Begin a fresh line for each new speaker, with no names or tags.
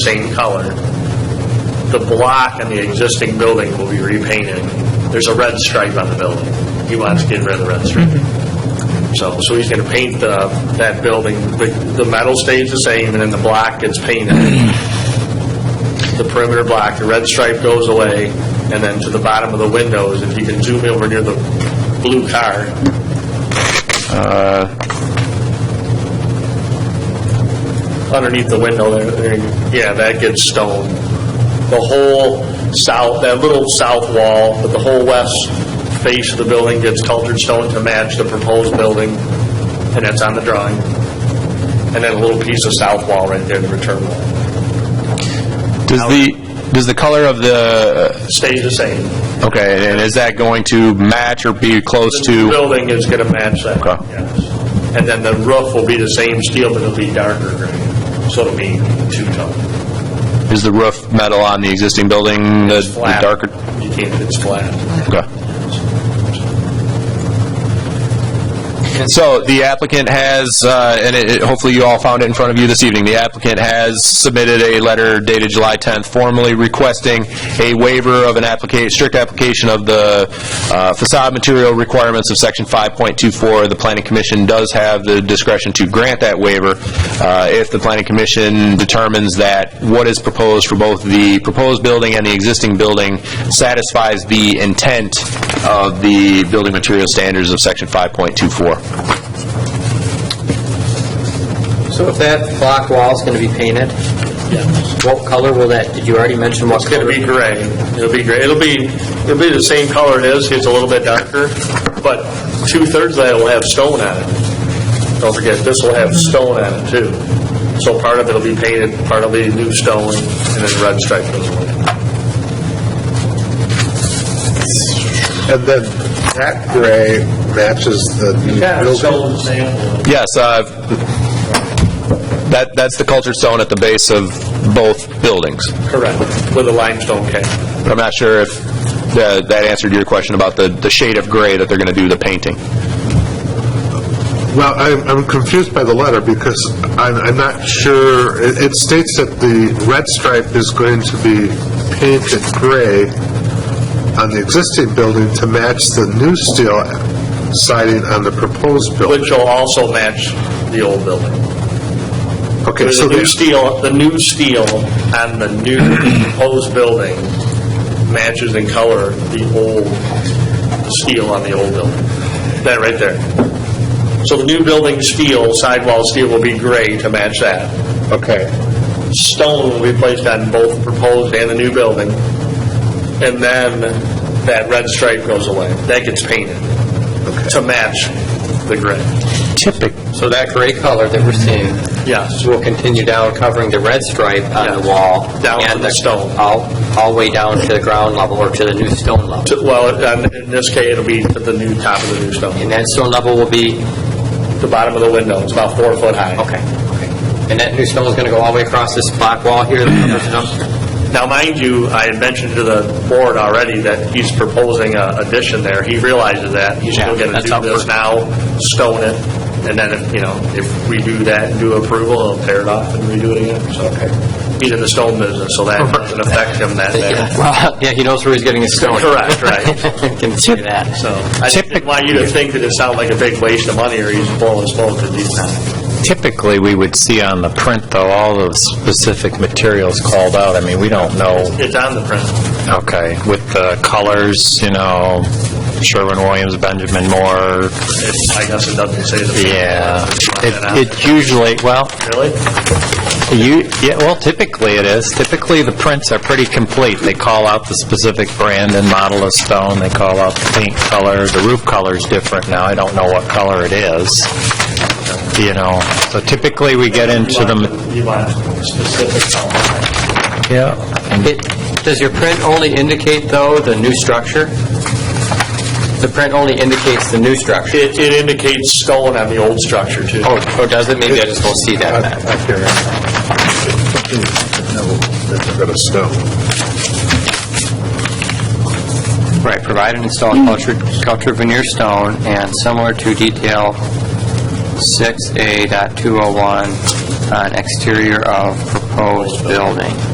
same color. The block on the existing building will be repainted. There's a red stripe on the building. He wants to get rid of the red stripe. So, so he's going to paint the, that building, the the metal stays the same, and then the block gets painted. The perimeter block, the red stripe goes away, and then to the bottom of the windows, if you can zoom over near the blue car, underneath the window there, there you- yeah, that gets stone. The whole south, that little south wall, but the whole west face of the building gets cultured stone to match the proposed building, and that's on the drawing. And then a little piece of south wall right there, the return wall,
Does the, does the color of the, uh,
stays the same.
okay, and is that going to match or be close
The new
to?
building is gonna match that,
Okay.
yes. And then the roof will be the same steel, but it'll be darker gray, so it'll be two-tone.
Is the roof metal on the existing building, the the
Flat.
darker?
You can't, it's flat.
Okay. So the applicant has, uh, and it- it- hopefully you all found it in front of you this evening, the applicant has submitted a letter dated July 10th formally requesting a waiver of an applica, strict application of the uh, facade material requirements of Section 5.24. The Planning Commission does have the discretion to grant that waiver uh, if the Planning Commission determines that what is proposed for both the proposed building and the existing building satisfies the intent of the building material standards of Section 5.24.
So if that block wall's going to be painted, what color will that, did you already mention what
It's
color?
gonna be gray. It'll be gray. It'll be, it'll be the same color it is, it's a little bit darker, but two-thirds of that will have stone on it. Don't forget, this will have stone on it too. So part of it'll be painted, part will be new stone, and then red stripe goes away.
And then that gray matches the new building.
sample.
Yes, uh, that, that's the cultured stone at the base of both buildings.
Correct, with a limestone cap.
But I'm not sure if tha- that answered your question about the, the shade of gray that they're going to do the painting.
Well, I'm, I'm confused by the letter because I'm, I'm not sure, it, it states that the red stripe is going to be painted gray on the existing building to match the new steel siding on the proposed building.
Which will also match the old building.
Okay,
There's
so
a new
the,
steel, the new steel on the new proposed building matches in color the old steel on the old building. That right there. So the new building steel, sidewall steel will be gray to match that.
okay,
Stone will be placed on both proposed and the new building. And then that red stripe goes away. That gets painted to match the gray.
So that gray color that we're seeing
Yes.
will continue down covering the red stripe on the wall.
Down to
and
the stone.
All, all the way down to the ground level or to the new stone level.
To- Well, on- in this case, it'll be to the new top of the new stone.
And that stone level will be,
the bottom of the window. It's about four foot high.
okay. And that new stone is going to go all the way across this block wall here that covers it up?
Now, mind you, I had mentioned to the board already that he's proposing a addition there. He realizes that. He's still
Yeah,
going to
that's
do
up
this
for-
now, stone it, and then, if, you know, if we do that and do approval, he'll tear it off and redo it again, so. He's in the stone business, so that doesn't affect him that bad.
Yeah, well, yeah, he knows where he's getting his stone.
Correct, right.
Can see that.
So, I just didn't want you to think that it sounded like a big waste of money or he's blowing smoke, because he's not.
Typically, we would see on the print, though, all those specific materials called out. I mean, we don't know,
It's on the print.
okay, with the colors, you know, Sherwin-Williams, Benjamin Moore,
It's- I guess it doesn't say the.
yeah. It
It
it usually, well,
Really?
you, yeah, well, typically it is. Typically, the prints are pretty complete. They call out the specific brand and model of stone, they call out the paint color, the roof color's different now, I don't know what color it is, you know. So typically, we get into the, ma-
You want specific color.
yeah.
It- Does your print only indicate, though, the new structure? The print only indicates the new structure?
It, it indicates stone on the old structure, too.
Oh, oh, does it? Maybe I just won't see that then.
I hear it. No, Bit of stone.
Right, provide and install cultured, cultured veneer stone and similar to detail 6A.201 on uh, exterior of proposed building.